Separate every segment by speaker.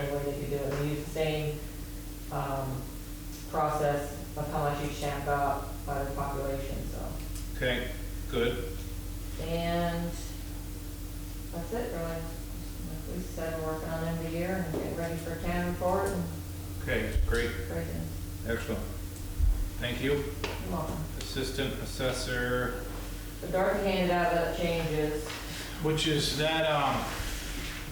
Speaker 1: um, ready for town for it, and
Speaker 2: Okay, great,
Speaker 1: great, and
Speaker 2: excellent. Thank you.
Speaker 1: you're welcome.
Speaker 2: Assistant Assessor,
Speaker 1: The dark handout that changes,
Speaker 2: which is that, um,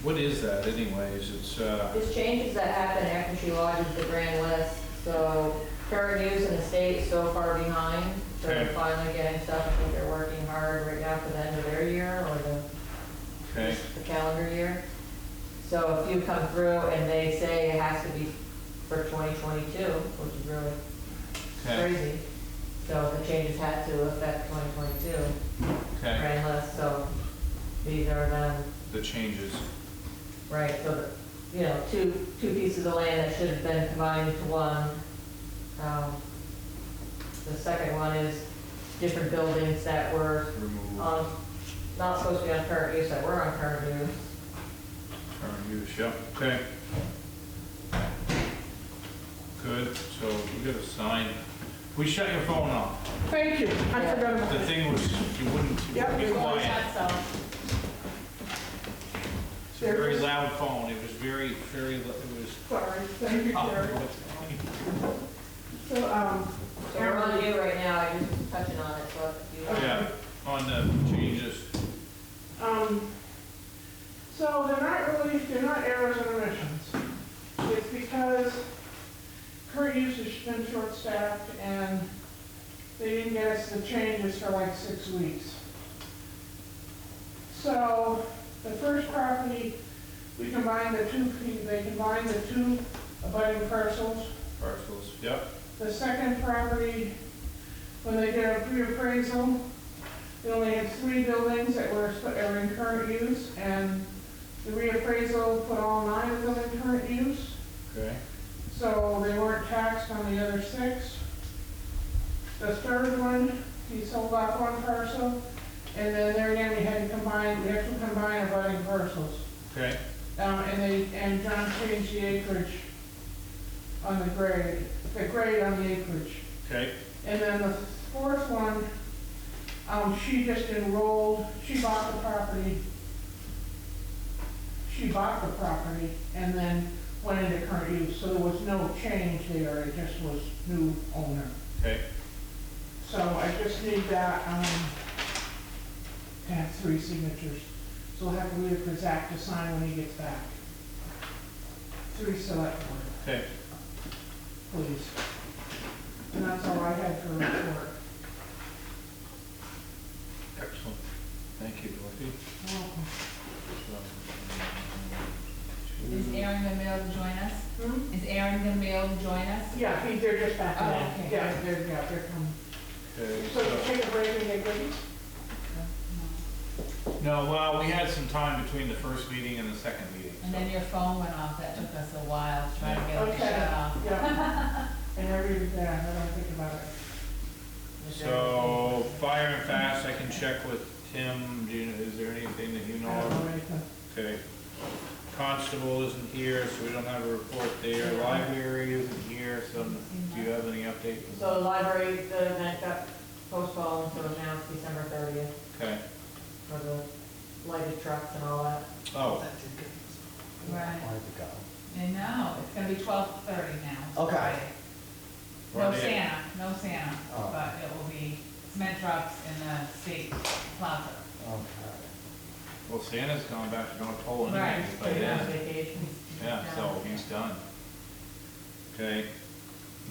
Speaker 2: what is that anyways? It's, uh,
Speaker 1: There's changes that happen after she lodges the grand list, so current use in the state is so far behind. So they're
Speaker 2: Okay.
Speaker 1: finally getting stuff, I think they're working hard right now for the end of their year or the,
Speaker 2: okay,
Speaker 1: the calendar year. So if you come through and they say it has to be for 2022, which is really
Speaker 2: okay,
Speaker 1: crazy. So the changes had to affect 2022
Speaker 2: okay,
Speaker 1: grand list, so these are done
Speaker 2: the changes.
Speaker 1: Right, so, the- you know, two, two pieces of land that should have been combined into one. Um, The second one is different buildings that were
Speaker 2: Remove
Speaker 1: on, not supposed to be on current use, that were on current use.
Speaker 2: current use, yep, okay. Good, so we got a sign. We shut your phone off.
Speaker 3: Thank you, I forgot about
Speaker 2: The
Speaker 3: it.
Speaker 2: thing was, you wouldn't, you
Speaker 3: Yep,
Speaker 2: wouldn't
Speaker 3: we
Speaker 2: get
Speaker 3: always
Speaker 2: quiet. It's a very loud phone. It was very, very, lo- it was.
Speaker 3: Sorry, thank you, Jerry. So, um,
Speaker 1: So we're on you right now, I just was touching on it, so if you.
Speaker 2: Yeah, on the changes.
Speaker 3: um, so they're not really, they're not errors and omissions. It's because current use has been short-staffed and they didn't get us the changes for like six weeks. So the first property, we combined the two, they combined the two abutting parcels.
Speaker 2: Parcels, yep,
Speaker 3: The second property, when they did a reappraisal, they only had three buildings that were, that were in current use, and the reappraisal put all nine of them in current use,
Speaker 2: okay,
Speaker 3: so they weren't taxed on the other six. The third one, he sold off one parcel, and then there again, we had to combine, we have to combine abutting parcels.
Speaker 2: okay,
Speaker 3: Um, and they, and John changed the acreage on the grade, the grade on the acreage.
Speaker 2: okay,
Speaker 3: And then the fourth one, um, she just enrolled, she bought the property. She bought the property and then went into current use, so there was no change there, it just was new owner.
Speaker 2: okay,
Speaker 3: So I just need that, um, to have three signatures. So we'll have to leave for Zach to sign when he gets back. Three select board,
Speaker 2: okay.
Speaker 3: please. And that's all I had for report.
Speaker 2: Excellent. Thank you, Dorothy.
Speaker 3: Welcome.
Speaker 4: Is Aaron gonna be able to join us?
Speaker 3: Hmm?
Speaker 4: Is Aaron gonna be able to join us?
Speaker 3: Yeah, he- they're just back
Speaker 4: Oh,
Speaker 3: now.
Speaker 4: okay.
Speaker 3: Yeah, they're, yeah, they're coming.
Speaker 2: Okay,
Speaker 3: So you
Speaker 2: so-
Speaker 3: take a break and get ready?
Speaker 2: No, well, we had some time between the first meeting and the second meeting,
Speaker 4: And then
Speaker 2: so.
Speaker 4: your phone went off, that took us a while to try to get it to shut off.
Speaker 3: Yeah. And I read it down, I don't think about it.
Speaker 2: So, fire and fast, I can check with Tim, do you, is there anything that you know
Speaker 3: I
Speaker 2: of?
Speaker 3: don't know anything.
Speaker 2: Okay. Constable isn't here, so we don't have a report there. Library isn't here, so do you have any update?
Speaker 1: So the library, the event got postponed, so now it's December thirtieth
Speaker 2: Okay,
Speaker 1: for the lighted trucks and all that.
Speaker 2: oh,
Speaker 4: Right,
Speaker 5: Wanted to go.
Speaker 4: I know, it's gonna be twelve thirty now.
Speaker 5: Okay.
Speaker 4: Friday. No
Speaker 2: Friday.
Speaker 4: Santa, no Santa,
Speaker 5: Oh.
Speaker 4: but it will be cement trucks in the state plaza.
Speaker 5: Okay.
Speaker 2: well, Santa's gone back to North Pole
Speaker 4: Right.
Speaker 2: anyways by then.
Speaker 1: Vacations.
Speaker 2: Yeah, so he's done. Okay,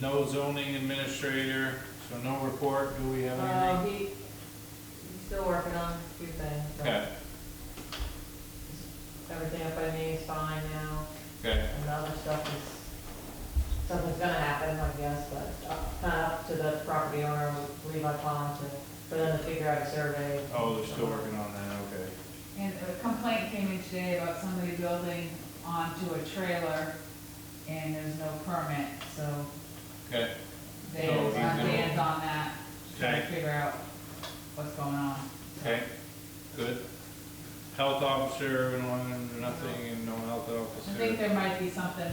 Speaker 2: no zoning administrator, so no report, do we have
Speaker 1: Uh,
Speaker 2: anything?
Speaker 1: he, he's still working on a few things, so
Speaker 2: Okay,
Speaker 1: everything up by me is fine now,
Speaker 2: okay,
Speaker 1: and the other stuff is, something's gonna happen, I guess, but up- kind of up to the property owner, Levi Pond, to, for them to figure out a survey.
Speaker 2: oh, they're still working on that, okay.
Speaker 4: And a complaint came in today about somebody building onto a trailer and there's no permit, so
Speaker 2: Okay,
Speaker 4: they,
Speaker 2: So he's gonna-
Speaker 4: Dan's on that, trying to
Speaker 2: okay,
Speaker 4: figure out what's going on.
Speaker 2: okay, good. Health officer, no one, nothing, and no health
Speaker 4: I think
Speaker 2: officer.
Speaker 4: there might be something